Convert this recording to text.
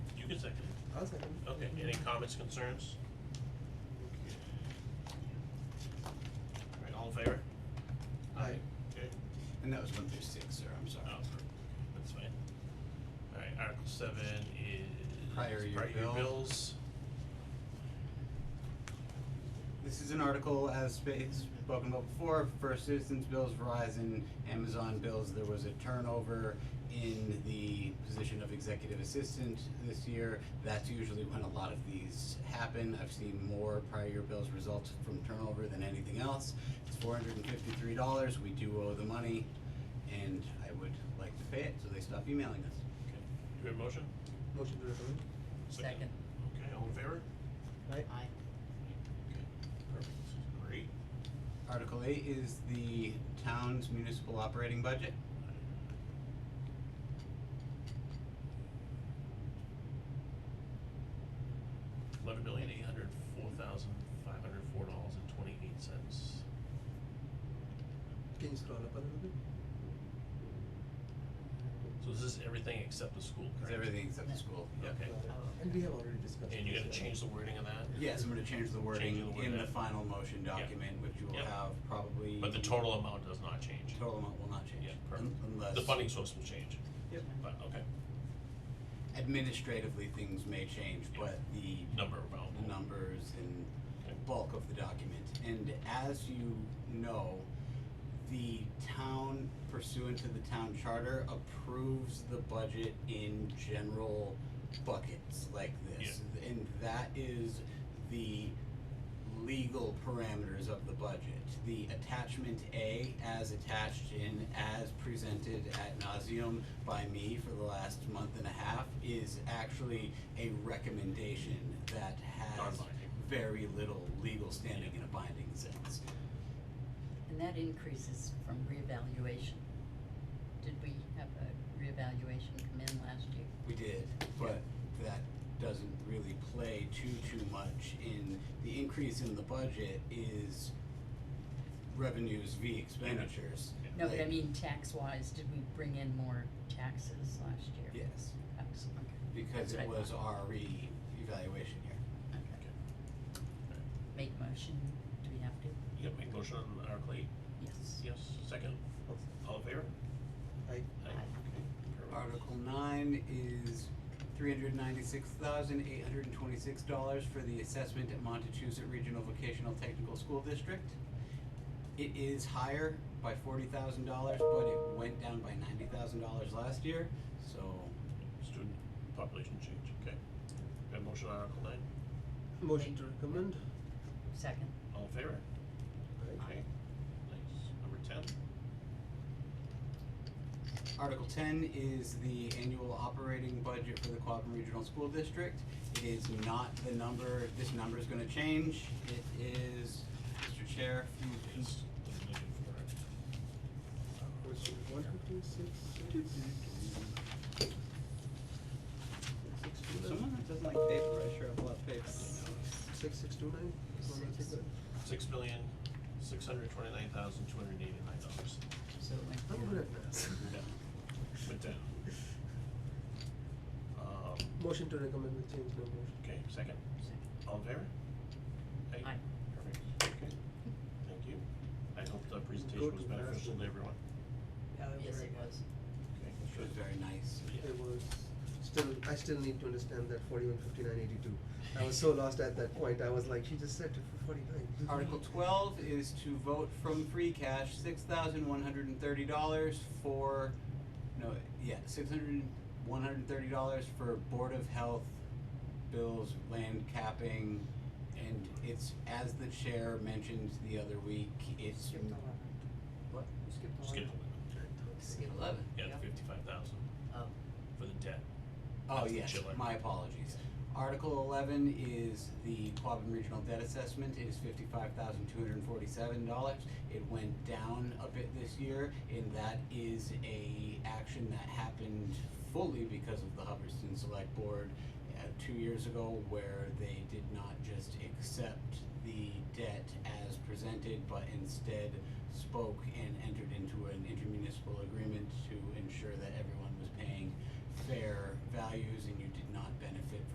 positive. Okay, any comments, concerns? All right, all in favor? Aye. Okay, And that was one through six, sir, I'm sorry. oh, that's fine. All right, Article seven is. Prior year bill. bills. This is an article as sp- it's spoken about before, for citizens bills, Verizon, Amazon bills, there was a turnover in the position of executive assistant this year. That's usually when a lot of these happen. I've seen more prior year bills result from turnover than anything else. It's four hundred and fifty-three dollars, we do owe the money, and I would like to pay it, so they stop emailing us. Okay, do we have a motion? Motion to recommend. Second. Okay, all in favor? Aye. Aye. Okay, perfect, great. Article eight is the town's municipal operating budget. Eleven million eight hundred four thousand five hundred four dollars and twenty-eight cents. Can you scroll up a little bit? So this is everything except the school, It's correct? everything except the school. Yep. Okay. Got it. And we have already discussed. And you're gonna this, uh, change the wording of that? Yes, I'm gonna change the the wording word in the out. final motion Yeah. document, which you will Yeah. have probably. But the total amount does not change. Total amount will not change. Yeah, un- perfect. Unless. The funding source will change, Yep. but, okay, Administratively, things may change, Yeah. but the number amount. the numbers and Okay. bulk of the document. And as you know, the town pursuant to the town charter approves the budget in general buckets like this. And that is the legal parameters of the budget. The attachment A as attached in, as presented ad nauseum by me for the last month and a half is actually a recommendation that has Non-binding. very little legal standing in a binding sense. And that increases from reevaluation. Did we have a reevaluation come in last year? We did, but that doesn't really play too, too much in, the increase in the budget is revenues v expenditures. No, but I Like, mean tax wise, did we bring in more taxes last year? Yes, Tax, okay, because That's it right. was our re-evaluation year. okay. Make motion, do we have to? You gotta make motion on Article eight, Yes. yes, second, oh, all in favor? Aye. Aye. Perfect. Article nine is three hundred ninety-six thousand eight hundred and twenty-six dollars for the assessment at Montechusett Regional Vocational Technical School District. It is higher by forty thousand dollars, but it went down by ninety thousand dollars last year, so Student population change, okay. We have motion on Article nine, Motion to recommend. Second, all in favor? Aye. Okay, nice, number ten, Article ten is the annual operating budget for the Quabbin Regional School District. It is not the number, this number is gonna change, it is, Mr. Chair, if you can yes, I'm looking for it. Motion one fifty six. Six two nine. Someone that doesn't like paper, I sure have a lot of paper. Six six two nine. One Six. fifty nine. Six million, six hundred twenty-nine thousand, two hundred eighty-nine dollars. so it went I'm down. good at maths. Yeah, went down. Um, Motion to recommend with change no motion. okay, second, Second. all in favor? Aye. Aye. Perfect, okay, thank you. I hope the presentation Good was to have. beneficial to everyone. Yeah, that was Yes, very it good. was. Okay, Which was very nice. Yeah. It was still, I still need to understand that forty-one, fifty-nine, eighty-two. I was so lost at that point. I was like, she just said forty-nine. Article twelve is to vote from free cash, six thousand one hundred and thirty dollars for, no, yeah, six hundred, one hundred and thirty dollars for Board of Health bills, land capping, and it's, as the chair mentioned the other week, it's. Skipped eleven. What? We Skipped eleven. Skip the, Skip Eleven. yeah, Yep. the fifty-five thousand Oh, for the debt. Uh, Oh, That's the yes, chiller. my apologies. Article eleven is the Quabbin Regional Debt Assessment, it is fifty-five thousand two hundred and forty-seven dollars. It went down a bit this year, and that is a action that happened fully because of the Hubbardston Select Board uh, two years ago, where they did not just accept the debt as presented, but instead spoke and entered into an intermunicipal agreement to ensure that everyone was paying fair values and you did not benefit